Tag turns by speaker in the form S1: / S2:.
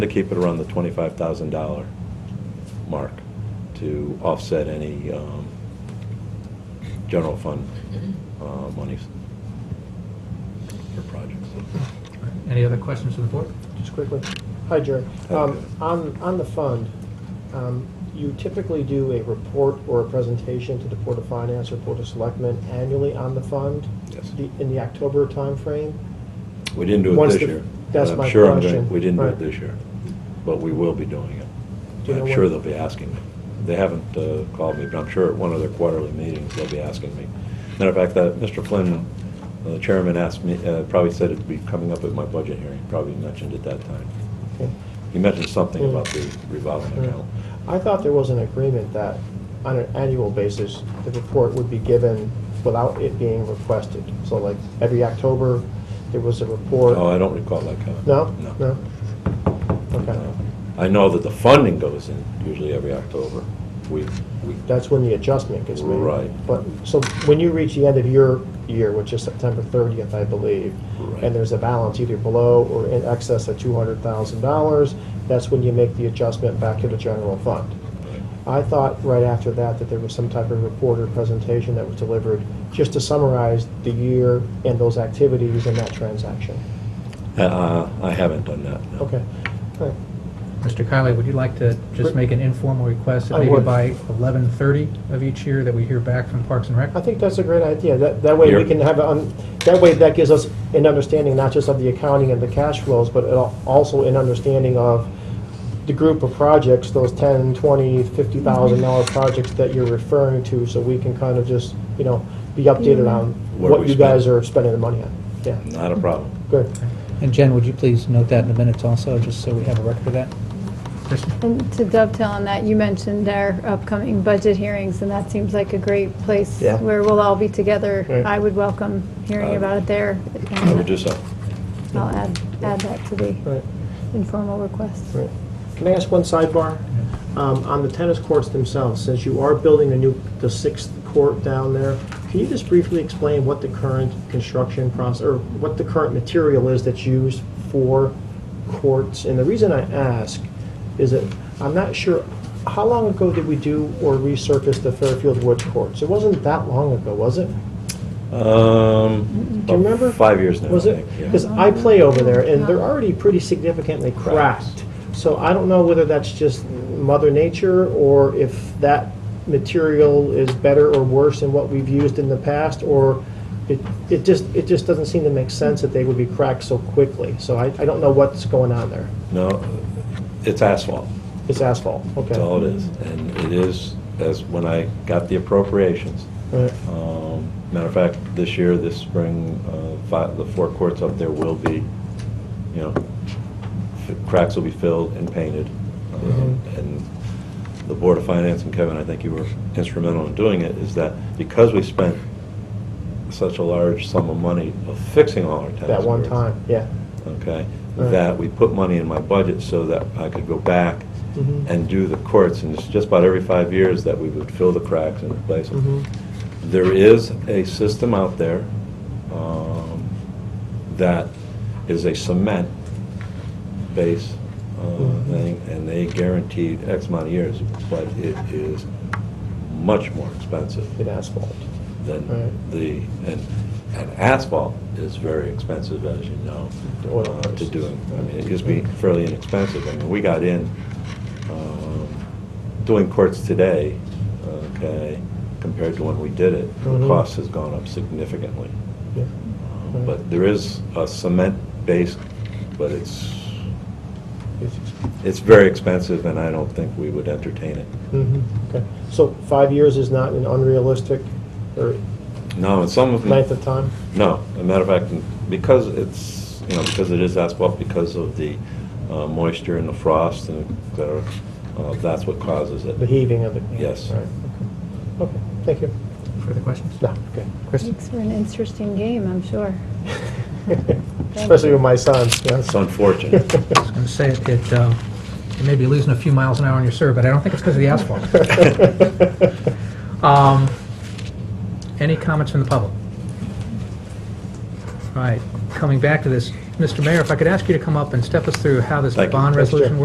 S1: to keep it around the twenty-five thousand dollar mark to offset any um, general fund uh, monies for projects.
S2: Any other questions from the board?
S3: Just quickly. Hi, Jerry.
S1: Hi,
S3: Um,
S1: Jerry.
S3: On, on the fund, um, you typically do a report or a presentation to the Board of Finance or Board of Selectmen annually on the fund?
S1: Yes.
S3: the- In the October timeframe?
S1: We didn't do it
S3: Once
S1: this
S3: the-
S1: year.
S3: that's
S1: but I'm
S3: my
S1: sure I'm
S3: question.
S1: going- We didn't do it
S3: Right.
S1: this year, but we will be doing it.
S3: Do you know
S1: I'm
S3: when-
S1: sure they'll be asking me. They haven't uh, called me, but I'm sure at one of their quarterly meetings, they'll be asking me. Matter of fact, that Mr. Flynn, the chairman, asked me, uh, probably said it'd be coming up at my budget hearing, probably mentioned it that time.
S3: Okay.
S1: He mentioned something
S3: Hmm.
S1: about the revolving account.
S3: I thought there was an agreement that on an annual basis, the report would be given without it being requested. So like every October, there was a report?
S1: Oh, I don't recall that comment.
S3: No?
S1: No.
S3: No? Okay.
S1: I know that the funding goes in usually every October. We, we
S3: That's when the adjustment gets made.
S1: Right.
S3: But, so when you reach the end of your year, which is September 30th, I believe,
S1: Right.
S3: and there's a balance either below or in excess of $200,000, that's when you make the adjustment back to the general fund. I thought right after that that there was some type of report or presentation that was delivered just to summarize the year and those activities and that transaction.
S1: Uh, I haven't done that, no.
S3: Okay. All right.
S2: Mr. Kiley, would you like to just make an informal request that
S3: I
S2: maybe
S3: would.
S2: by 11:30 of each year that we hear back from Parks and Rec?
S3: I think that's a great idea. That, that way
S1: Here.
S3: we can have, um, that way that gives us an understanding not just of the accounting and the cash flows, but it al- also an understanding of the group of projects, those ten, twenty, fifty thousand dollar projects that you're referring to, so we can kind of just, you know, be updated on
S1: What
S3: what
S1: we
S3: you guys
S1: spend.
S3: are spending the money on. Yeah,
S1: Not a problem.
S3: good.
S4: And Jen, would you please note that in the minutes also, just so we have a record of that?
S2: Kristen?
S5: And to dovetail on that, you mentioned our upcoming budget hearings, and that seems like a great place
S3: Yeah.
S5: where we'll all be together.
S3: Right. Uh,
S5: I would welcome hearing
S1: I-
S5: about it there.
S1: I would do so.
S5: I'll add, add that to the
S3: Right,
S5: informal request.
S3: right. Can I ask one sidebar? Um, on the tennis courts themselves, since you are building a new, the sixth court down there, can you just briefly explain what the current construction process, or what the current material is that's used for courts? And the reason I ask is that, I'm not sure, how long ago did we do or resurface the Fairfield Woods courts? It wasn't that long ago, was it?
S1: Um,
S3: Do you
S1: about
S3: remember?
S1: Five years now, I
S3: Was it?
S1: think.
S3: Because
S1: yeah.
S3: I play over there, and they're already pretty significantly cracked. So I don't know whether that's just mother nature, or if that material is better or worse than what we've used in the past, or it, it just, it just doesn't seem to make sense that they would be cracked so quickly. So I, I don't know what's going on there.
S1: No, it's asphalt.
S3: It's asphalt, okay.
S1: That's all it is. And it is, as when I got the appropriations.
S3: Right.
S1: Um, Matter of fact, this year, this spring, uh, fi- the four courts up there will be, you know, f- cracks will be filled and painted. Um,
S3: Mm-hmm.
S1: And the Board of Finance, and Kevin, I think you were instrumental in doing it, is that because we spent such a large sum of money of fixing all our tennis
S3: That one
S1: courts,
S3: time, yeah.
S1: okay?
S3: Right.
S1: That we put money in my budget so that I could go back
S3: Mhm.
S1: and do the courts, and it's just about every five years that we would fill the cracks and replace them.
S3: Mhm.
S1: There is a system out there um, that is a cement base uh,
S3: Mhm.
S1: thing, and they guaranteed X amount of years, but it is much more expensive
S3: It's asphalt.
S1: than
S3: Right.
S1: the, and, and asphalt is very expensive, as you know,
S3: The oil
S1: uh, to
S3: prices. Mm-hmm.
S1: do. I mean, it used to be fairly inexpensive. I mean, we got in, um, doing courts today, okay, compared to when we did it, the
S3: Mhm.
S1: cost has gone up significantly.
S3: Yeah.
S1: Um, But there is a cement base, but it's,
S3: It's expensive.
S1: it's very expensive, and I don't think we would entertain it.
S3: Mhm, Okay, so five years is not an unrealistic or
S1: No, and some of them.
S3: length of time?
S1: No, as a matter of fact, because it's, you know, because it is asphalt, because of the uh, moisture and the frost and et cetera, uh, that's what causes
S3: The
S1: it.
S3: heaving of the...
S1: Yes.
S3: All right, okay. Okay, thank you.
S2: Further questions?
S3: No, okay.
S2: Kristen?
S5: Thanks for an interesting game, I'm sure.
S3: Especially with my son, yes.
S1: It's unfortunate.
S2: I was going to say it- it, uh, you may be losing a few miles an hour on your serve, but I don't think it's because of the asphalt. Um, Any comments from the public? All right, coming back to this, Mr. Mayor, if I could ask you to come up and step us through how this
S1: Thank you.
S2: bond
S3: Yes, sure.
S2: resolution